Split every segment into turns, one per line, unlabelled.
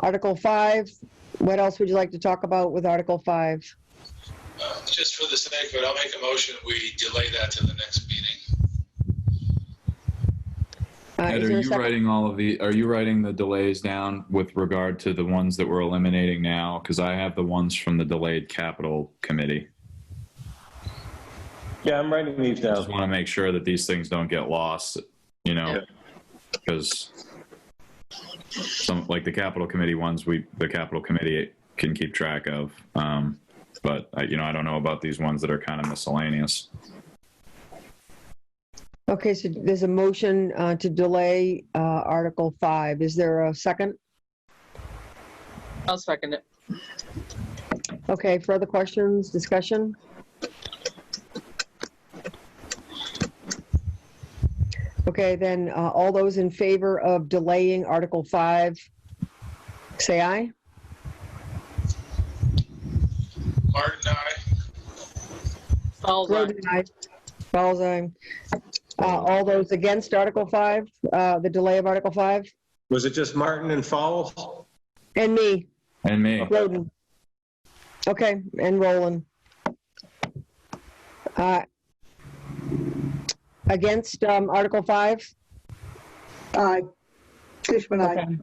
Article five, what else would you like to talk about with Article five?
Uh, Just for the sake of it, I'll make a motion, we delay that to the next meeting.
Uh,
Ed,
is
are
there a
you
second?
writing all of the, are you writing the delays down with regard to the ones that we're eliminating now? Because I have the ones from the delayed capital committee.
Yeah, I'm writing these
I just
down.
want to make sure that these things don't get lost, you know, because some, like the capital committee ones, we, the capital committee can keep track of. Um, But, I- you know, I don't know about these ones that are kind of miscellaneous.
Okay, so there's a motion uh, to delay uh, Article 5. Is there a second?
I'll second it.
Okay, further questions, discussion? Okay, then, uh, all those in favor of delaying Article 5, say aye.
Martin, aye.
Falls on.
Groden, aye. Falls, aye. Uh, All those against Article 5, uh, the delay of Article 5?
Was it just Martin and Fowles?
And me,
And me,
Roden. Okay, and Roland. Uh, Against um, Article 5?
Aye. Fishman, aye.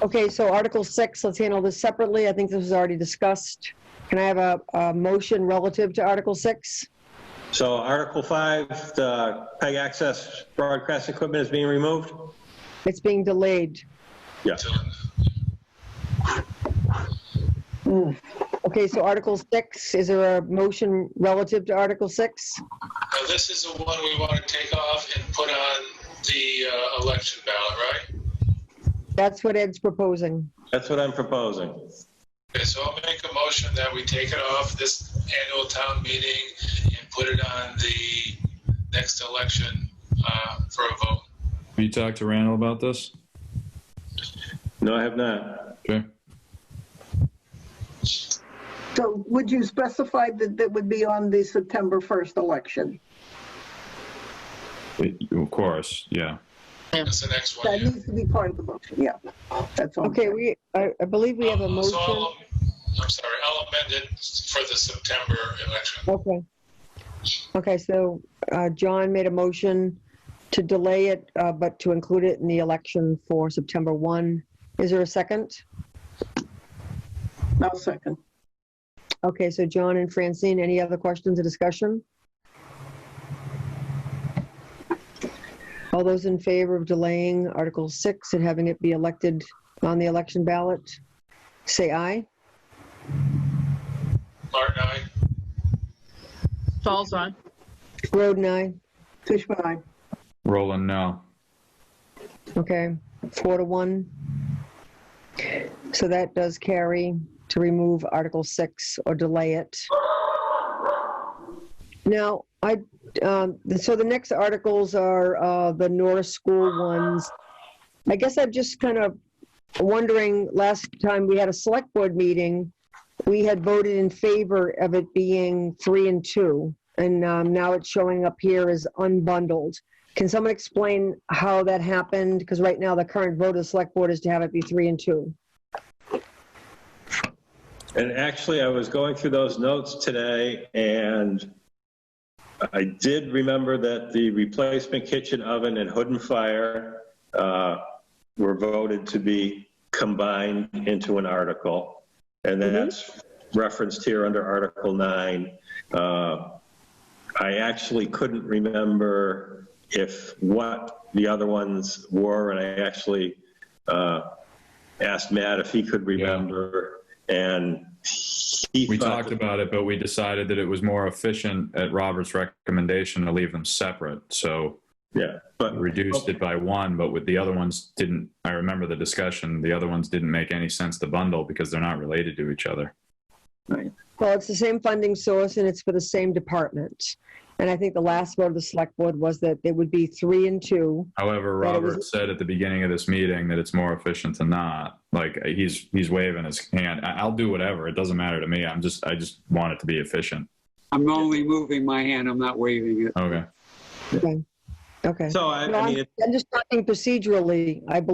Okay, so Article 6, let's handle this separately. I think this was already discussed. Can I have a, a motion relative to Article 6?
So Article 5, the PEG access broadcast equipment is being removed?
It's being delayed.
Yes.
Okay, so Article 6, is there a motion relative to Article 6?
Now, this is the one we want to take off and put on the uh, election ballot, right?
That's what Ed's proposing.
That's what I'm proposing.
Okay, so I'll make a motion that we take it off this annual town meeting and put it on the next election uh, for a vote.
have you talked to Randall about this?
No, I have not.
Okay.
So would you specify that that would be on the September 1st election?
Of course, yeah.
That's the next one.
That
yeah.
needs to be part of the motion, yeah. That's all.
Okay, we, I I believe we have a
Um, so I'll-
motion.
I'm sorry, I'll amend it for the September election.
Okay. Okay, so uh, John made a motion to delay it, uh, but to include it in the election for September 1. Is there a second?
I'll second.
Okay, so John and Francine, any other questions or discussion? All those in favor of delaying Article 6 and having it be elected on the election ballot, say aye.
Martin, aye.
Falls on.
Groden, aye.
Fishman, aye.
Roland, no.
Okay, four to one. So that does carry to remove Article 6 or delay it. Now, I, um, so the next articles are uh, the Norris School ones. I guess I'm just kind of wondering, last time we had a select board meeting, we had voted in favor of it being three and two, and um, now it's showing up here as unbundled. Can someone explain how that happened? Because right now, the current vote of the select board is to have it be three and two.
And actually, I was going through those notes today and I did remember that the replacement kitchen oven and hood and fire uh, were voted to be combined into an article. And that's referenced here under Article 9. Uh, I actually couldn't remember if what the other ones were, and I actually uh, asked Matt if he could remember, and he
We
thought
talked about it, but we decided that it was more efficient at Robert's recommendation to leave them separate. So
Yeah, but
reduced it by one, but with the other ones didn't, I remember the discussion, the other ones didn't make any sense to bundle because they're not related to each other.
Well, it's the same funding source and it's for the same department. And I think the last vote of the select board was that it would be three and two.
However,
But it was-
Robert said at the beginning of this meeting that it's more efficient to not, like, he's, he's waving his hand. I, I'll do whatever. It doesn't matter to me. I'm just, I just want it to be efficient.
I'm only moving my hand, I'm not waving it.
Okay.
Okay.
So I,
No,
I mean,
I'm
it
I'm just talking procedurally. I believe